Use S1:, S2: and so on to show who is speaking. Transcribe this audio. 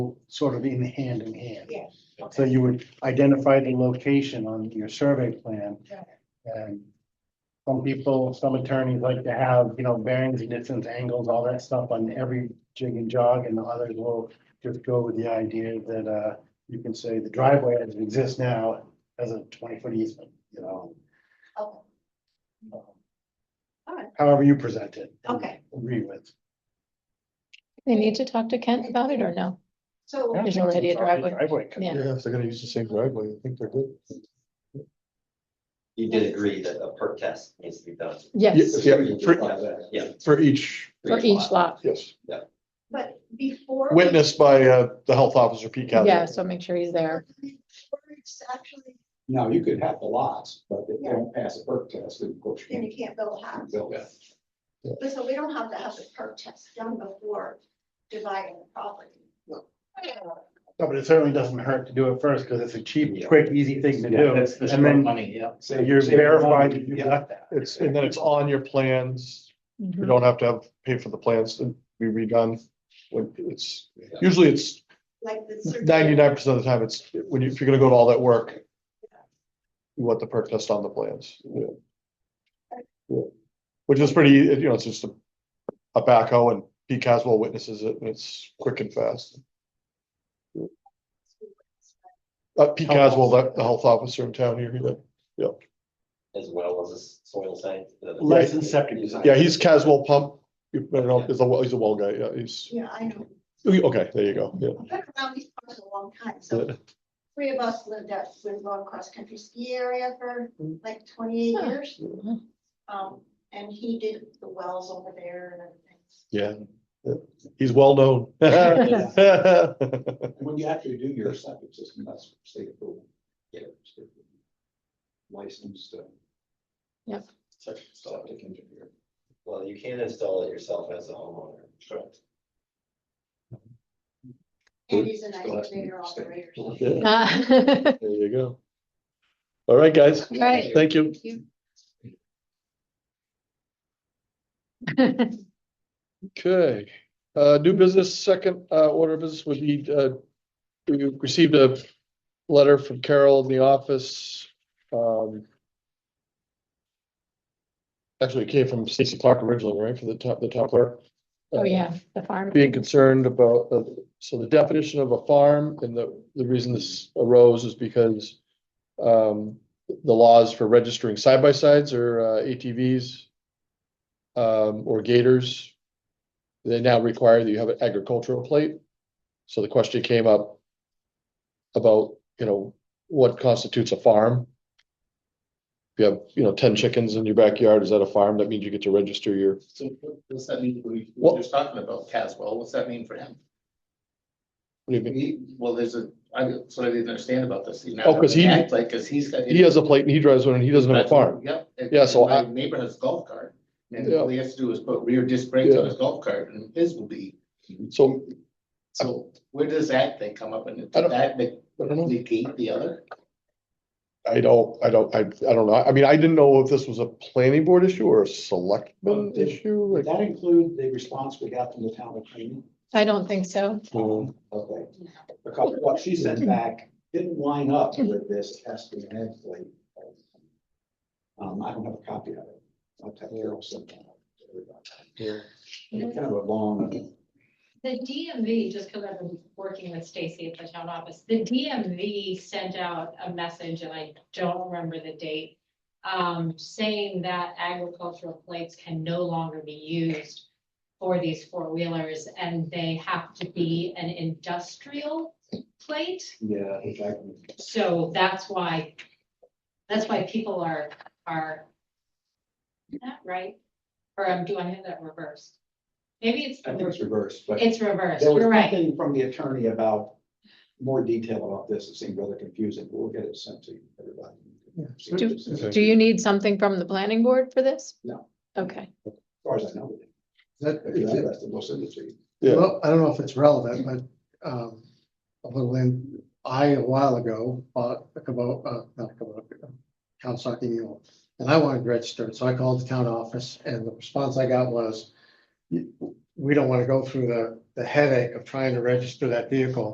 S1: go sort of in hand in hand.
S2: Yeah.
S1: So you would identify the location on your survey plan.
S2: Got
S1: And some people, some attorneys like to have, you know, bearings, distance, angles, all that stuff on every jig and jog, and others will just go with the idea that, uh, you can say the driveway as it exists now has a twenty-foot easement, you know.
S2: Okay. Alright.
S1: However you present it. and
S2: Okay.
S1: Agree with.
S3: They need to talk to Kent about it or no?
S2: So,
S3: There's already a driveway. Yeah.
S4: Yeah, if they're gonna use the same driveway, I think they're good.
S5: You did agree that a perk test needs to be done.
S3: Yes,
S4: Yeah,
S5: You did
S4: for-
S5: have that, Yeah.
S4: For each,
S3: for each lot.
S4: yes,
S2: but before. we-
S4: witnessed by uh, the health officer, Pete Cavanaugh.
S3: Yeah, so make sure he's there.
S2: before it's Actually,
S6: Now, you could have the lots, but if they don't pass a perk test, then of course.
S2: then
S6: you
S2: you can't build a
S6: can't
S2: house.
S6: build it.
S2: But so we don't have to have the perk test done before dividing the property.
S1: No, but it certainly doesn't hurt to do it first, because it's a cheap,
S5: Yeah.
S1: quick, easy thing to do. And then
S7: money, yeah.
S1: so you're verified that you got that.
S4: It's, and then it's on your plans, you
S3: Mhm.
S4: don't have to have, pay for the plans to be redone. When it's,
S5: Yeah.
S4: usually it's
S2: Like the.
S4: ninety-nine percent of the time, it's, when you, if you're gonna go to all that work. You want the perk test on the plans, yeah. Yeah. Which is pretty, you know, it's just a, a backhoe and Pete Caswell witnesses it, and it's quick and fast. Uh, Pete
S1: Health
S4: Caswell, the, the health officer in town here, he did.
S5: As well as this soil site. the-
S1: Licensed septic design.
S4: yeah, he's Caswell Pump. You I don't know, he's a, well- he's a well guy, yeah, he's,
S2: Yeah, I know.
S4: okay, there you go, yeah.
S2: I've been around these parts a long time, so three of us lived at Winslow Cross Country Ski Area for
S6: Mm-hmm.
S2: like twenty-eight
S3: Huh.
S2: years.
S3: Mhm.
S2: Um, and he did the wells over there and everything.
S4: Yeah, he's well known. Yeah,
S6: And When you actually do your septic system, that's state approval.
S5: Yeah.
S6: Licensed. uh,
S3: Yep.
S6: Septic engineer.
S5: Well, you can install it yourself as a homeowner. Correct.
S2: And he's a nice
S6: Still has to be
S2: grader
S6: state
S2: operator.
S6: approval.
S3: Ah,
S4: There you go. All right, guys,
S3: Right.
S4: thank you. Okay, uh, new business, second, uh, order of business would be, uh, we received a letter from Carol in the office, um. Actually, it came from Stacy Clark originally, right, for the top, the top clerk.
S3: Oh, yeah, the farm.
S4: Being concerned about, uh, so the definition of a farm and the, the reason this arose is because. Um, the laws for registering side by sides or uh, ATVs. Um, or gators. They now require that you have an agricultural plate. So the question came up. About, you know, what constitutes a farm? If you have, you know, ten chickens in your backyard, is that a farm? That means you get to register your
S7: So what does that mean, we,
S4: What-
S7: we're just talking about Caswell, what's that mean for him?
S4: what do you mean?
S7: He, well, there's a, I, that's what I didn't understand about this. He's not
S4: Oh, 'cause he-
S7: act Like, cause he's got.
S4: He has a plate and he drives one and he doesn't have a farm.
S7: Yep. and-
S4: Yeah, so
S7: and my
S4: I-
S7: Neighbor has a golf cart, and
S4: Yeah.
S7: all he has to do is put rear disc brakes on
S4: Yeah.
S7: his golf cart, and his will be,
S4: So
S7: so where does that thing come up, and
S4: I don't-
S7: does that make,
S4: I don't know.
S7: negate the other?
S4: I don't, I don't, I, I don't know. I mean, I didn't know if this was a planning board issue or a selectman
S6: Um, it-
S4: issue.
S6: Would
S4: like-
S6: that include the response we got from the town attorney?
S3: I don't think so.
S4: Mm,
S6: Um, Okay. Because what she sent back didn't line up with this testing and egg plate. Um, I don't have a copy of it. I'll have Carol send that out to everybody. It's Kind of a long,
S8: The DMV, just because I've been working with Stacy at the town office, the DMV sent out a message, and I don't remember the date. Um, saying that agricultural plates can no longer be used for these four wheelers, and they have to be an industrial plate.
S6: yeah, exactly.
S8: So that's why, that's why people are, are. is that right? Or um, do I have that reversed? Maybe it's,
S6: I think it's reversed, but
S8: it's reversed,
S6: there was
S8: you're right.
S6: something from the attorney about more detail about this. It seemed rather confusing, but we'll get it sent to everybody. See what
S3: Do-
S6: it says. As
S3: Do you need something from the planning board for this?
S6: No.
S3: Okay,
S6: far as I know.
S9: That,
S6: If you're interested, we'll send it to you.
S4: Yeah.
S9: well, I don't know if it's relevant, but, um, a little in, I a while ago bought a Kubota, uh, not a Kubota, a Kawasaki mule. And I wanted registered, so I called the town office and the response I got was, "You- we don't want to go through the, the headache of trying to register that vehicle.